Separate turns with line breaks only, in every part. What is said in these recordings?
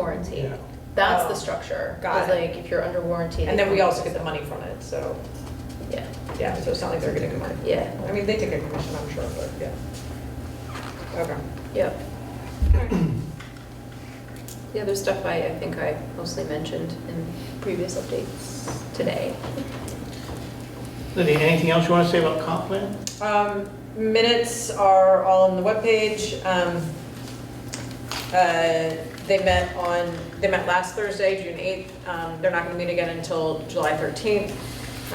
warranty.
Yeah.
That's the
Oh,
structure.
got
It's
it.
like if you're under warranty.
And then we also get the money from it, so,
Yeah,
yeah, so it's not like they're getting money.
yeah,
I mean, they take a commission, I'm sure, but yeah. Okay.
yep. The other stuff I, I think I mostly mentioned in previous updates today.
Lydia, anything else you want to say about comp plan?
Um, Minutes are all on the webpage. Um, uh, They met on, they met last Thursday, June 8th. Um, They're not going to meet again until July 13th.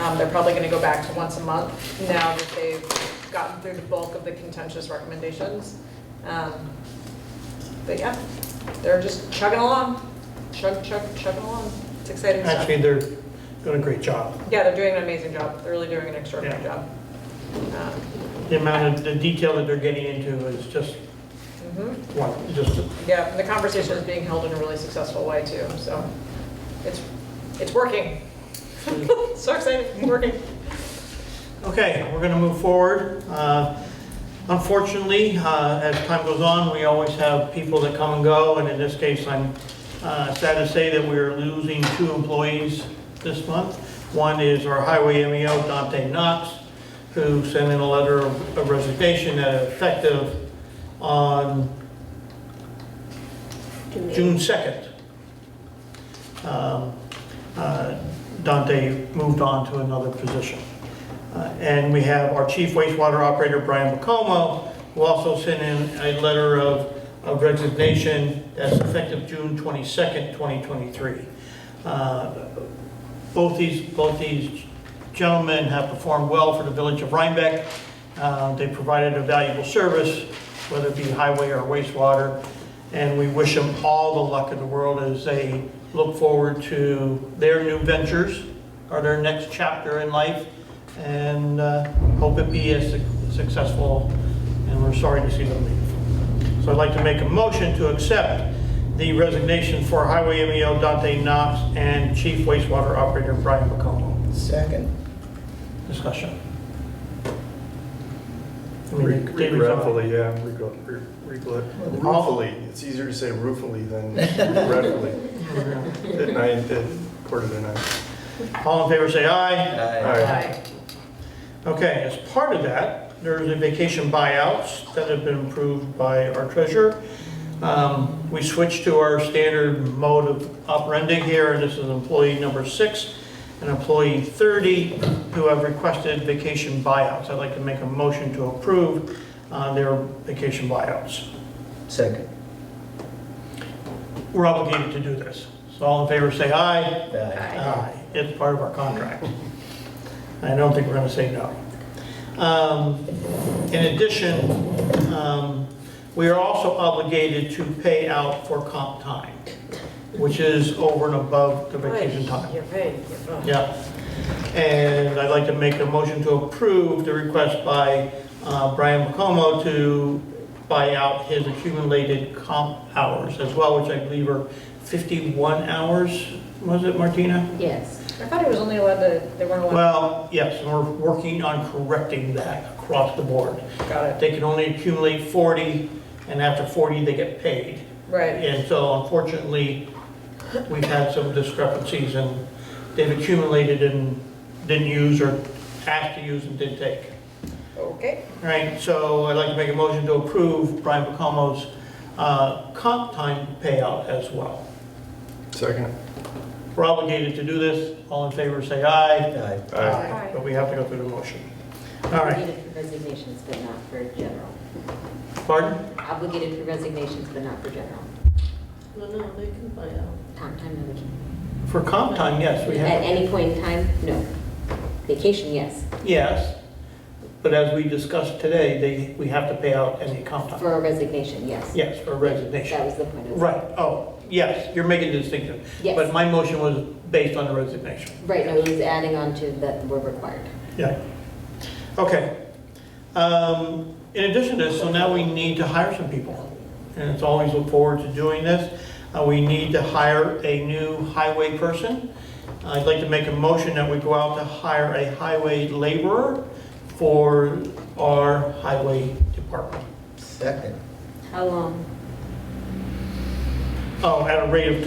Um, They're probably going to go back to once a month now that they've gotten through the bulk of the contentious recommendations. Um, But yeah, they're just chugging along, chug, chug, chugging along. It's exciting stuff.
Actually, they're doing a great job.
Yeah, they're doing an amazing job. They're really doing an extraordinary
Yeah.
job. Um,
The amount of, the detail that they're getting into is just,
mhm.
one, just,
Yeah, the conversation is being held in a really successful way too, so it's, it's working. So excited, it's working.
okay, we're going to move forward. Uh, Unfortunately, uh, as time goes on, we always have people that come and go, and in this case, I'm uh, sad to say that we're losing two employees this month. One is our highway MEO, Dante Knox, who sent in a letter of resignation that effective on June 2nd. Um, uh, Dante moved on to another position. Uh, And we have our chief wastewater operator, Brian Bacomo, who also sent in a letter of of resignation that's effective June 22nd, 2023. Uh, Both these, both these gentlemen have performed well for the village of Rhinebeck. Uh, They provided a valuable service, whether it be highway or wastewater, and we wish them all the luck in the world as they look forward to their new ventures or their next chapter in life, and uh, hope it be as suc- successful, and we're sorry to see them leave. So I'd like to make a motion to accept the resignation for Highway MEO Dante Knox and Chief Wastewater Operator Brian McComo.
Second.
Discussion. I mean,
Re-
David's on.
Regretfully, yeah, regret- re- regret- ruefully, it's easier to say ruefully than regretfully. At night, at quarter to nine.
All in favor, say aye.
All right.
Okay, as part of that, there's the vacation buyouts that have been approved by our treasurer. Um, We switched to our standard mode of operandi here, and this is employee number six and employee 30 who have requested vacation buyouts. I'd like to make a motion to approve uh, their vacation buyouts.
Second.
We're obligated to do this. So all in favor, say aye.
Aye.
Aye. Uh, It's part of our contract. I don't think we're going to say no. Um, In addition, um, we are also obligated to pay out for comp time, which is over and above the vacation time.
You're right, you're right.
Yeah. And I'd like to make a motion to approve the request by uh, Brian McComo to buy out his accumulated comp hours as well, which I believe are 51 hours, was it, Martina?
Yes.
I thought it was only allowed to, they weren't allowed,
Well, yes, and we're working on correcting that across the board.
got it,
They can only accumulate 40, and after 40, they get paid.
right.
And so unfortunately, we've had some discrepancies, and they've accumulated and didn't use or asked to use and didn't take.
Okay,
All right, so I'd like to make a motion to approve Brian Bacomo's uh, comp time payout as well.
Second.
We're obligated to do this. All in favor, say aye.
Aye.
Aye.
But we have to go through the motion. All
Obligated
right,
for Resignations, but not for general.
pardon?
Obligated for resignations, but not for general.
No, no, they can buy out.
Comp time, no vacation.
For comp time, yes, we
At
have,
any point in time, no. Vacation, yes.
yes. But as we discussed today, they, we have to pay out any comp time.
For a resignation, yes.
Yes, for
That
resignation.
was the point. of-
Right, oh, yes, you're making the distinction.
Yes.
But my motion was based on the resignation.
Right, no, it was adding on to that we're required.
Yeah. Okay. Um, In addition to this, so now we need to hire some people. And it's always look forward to doing this. Uh, We need to hire a new highway person. I'd like to make a motion that we go out to hire a highway laborer for our highway department.
Second.
How long?
Oh, at a rate of